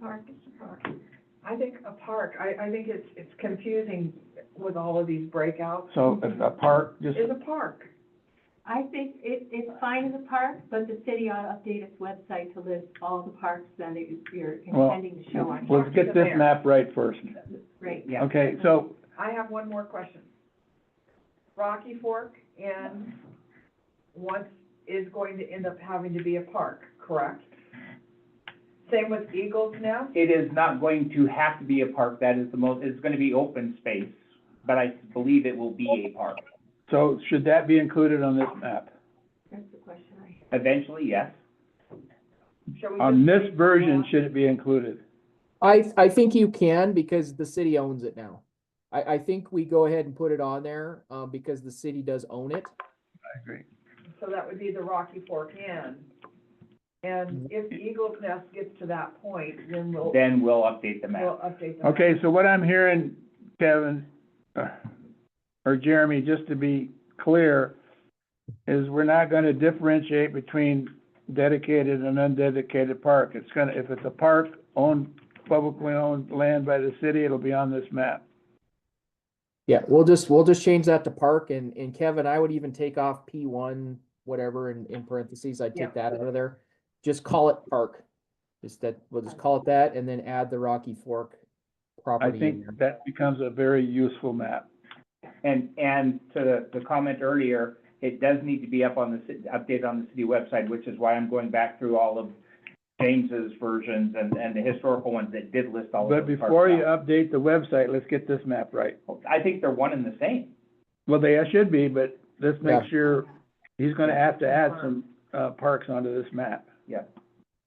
park is a park. I think a park, I, I think it's, it's confusing with all of these breakouts, So if a park, just, is a park. I think it, it's fine as a park, but the city ought to update its website to list all the parks that it- you're Well, intending to show on. let's get this map right first. Great. Yeah. Okay, so, I have one more question. Rocky Fork and once is going to end up having to be a park, correct? Same with Eagles Nest? It is not going to have to be a park, that is the most, it's gonna be open space, but I believe it will be a park. so should that be included on this map? That's the question I have. Eventually, yes. Shall we On just this leave version, that? should it be included? I, I think you can because the city owns it now. I, I think we go ahead and put it on there, uh, because the city does own it. I agree. So that would be the Rocky Fork Inn. And if Eagles Nest gets to that point, then we'll, Then we'll update the we'll map. update the map. Okay, so what I'm hearing, Kevin, uh, or Jeremy, just to be clear, is we're not gonna differentiate between dedicated and undedicated park. It's gonna, if it's a park owned, publicly owned land by the city, it'll be on this map. Yeah, we'll just, we'll just change that to park and, and Kevin, I would even take off P one, whatever, in, in parentheses, I'd Yeah. take that out of there. Just call it park. Just that, we'll just call it that and then add the Rocky Fork I property in think there. that becomes a very useful map. And, and to the comment earlier, it does need to be up on the, ci- updated on the city website, which is why I'm going back through all of James's versions and, and the historical ones that did list all of But those parks. before you out. update the website, let's get this map right. I think they're one and the same. Well, they should be, but let's make Yeah. sure, he's gonna have to add some, uh, parks onto this map.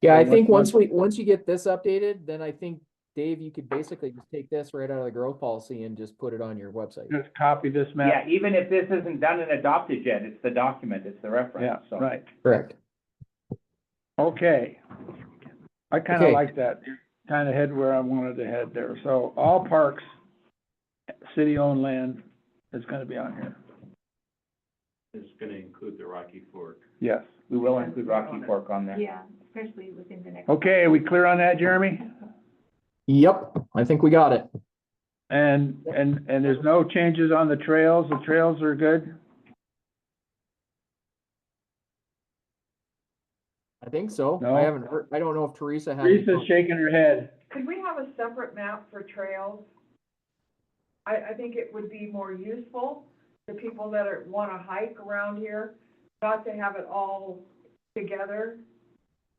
Yeah, I and think once- once we, once you get this updated, then I think, Dave, you could basically just take this right out of the growth policy and just put it on your website. Just copy this map. Yeah, even if this isn't done and adopted yet, it's the document, it's the Yeah, reference, so. right, Correct. okay. I kinda Okay. like that, kinda head where I wanted to head there, so all parks, city-owned land is gonna be on here, is gonna include the Rocky Fork. yes. We will include Rocky Fork on there. Yeah, especially within the next. Okay, we clear on that, Jeremy? Yep, I think we got it. And, and, and there's no changes on the trails, the trails are good? I think so. No. I haven't heard, I don't know if Teresa had. any Lisa's comments. shaking her head. Could we have a separate map for trails? I, I think it would be more useful to people that are, wanna hike around here, not to have it all together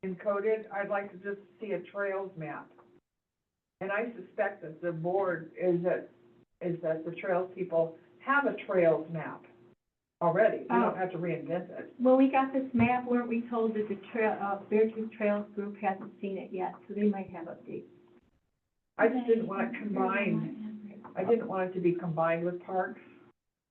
encoded. I'd like to just see a trails map. And I suspect that the board is that, is that the trails people have a trails map already. We Oh. don't have to reinvent it. Well, we got this map, weren't we told that the trail, uh, Beartooth Trails Group hasn't seen it yet, so they might have updates. I just didn't want it combined, I didn't want it to be combined with parks.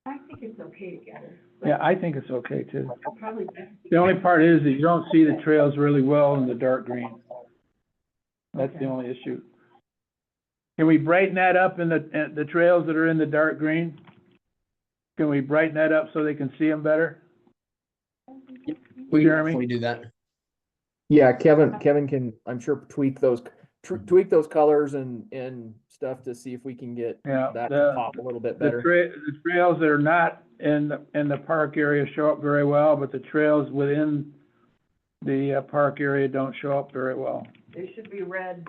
I think it's okay together. but Yeah, I think it's okay too. I'll Probably. just- The only part is that you don't see the trails really well in the dark green. That's the Okay. only issue. Can we brighten that up in the, in the trails that are in the dark green? Can we brighten that up so they can see them better? We, Jeremy? can we do that? Yeah, Kevin, Kevin can, I'm sure tweak those, Mm-hmm. tw- tweak those colors and, and stuff to see if we can get Yeah, that to the, pop a little bit the better. tra- the trails that are not in, the in the park area show up very well, but the trails within the uh, park area don't show up very well. They should be red,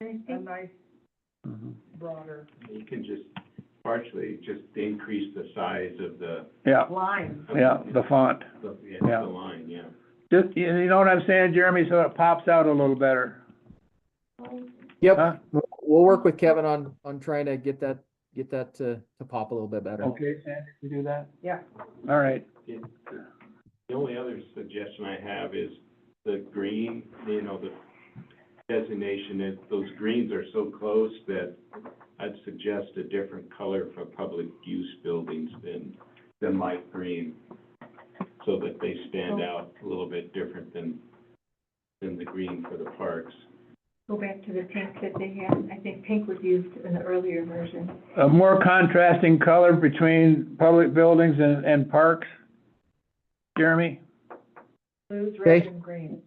And I a think nice Mhm. broader You can just partially just increase the size of the, Yeah, line. yeah, the font. the, yeah, Yeah. the line, yeah. Just, you you know what I'm saying, Jeremy, so it pops out a little better, huh? Yep, we'll- we'll work with Kevin on, on trying to get that, get that to, to pop a little bit better. Okay, Sandy, you do that? Yeah. All right, It- The only other suggestion I have is the green, you know, the designation, that those greens are so close that I'd suggest a different color for public use buildings than, than light green, so that they stand out a little bit different than, than the green for the parks. go back to the pink that they had, I think pink was used in the earlier version. a more contrasting color between public buildings and, and parks? Jeremy? Blues, red, Okay. and green.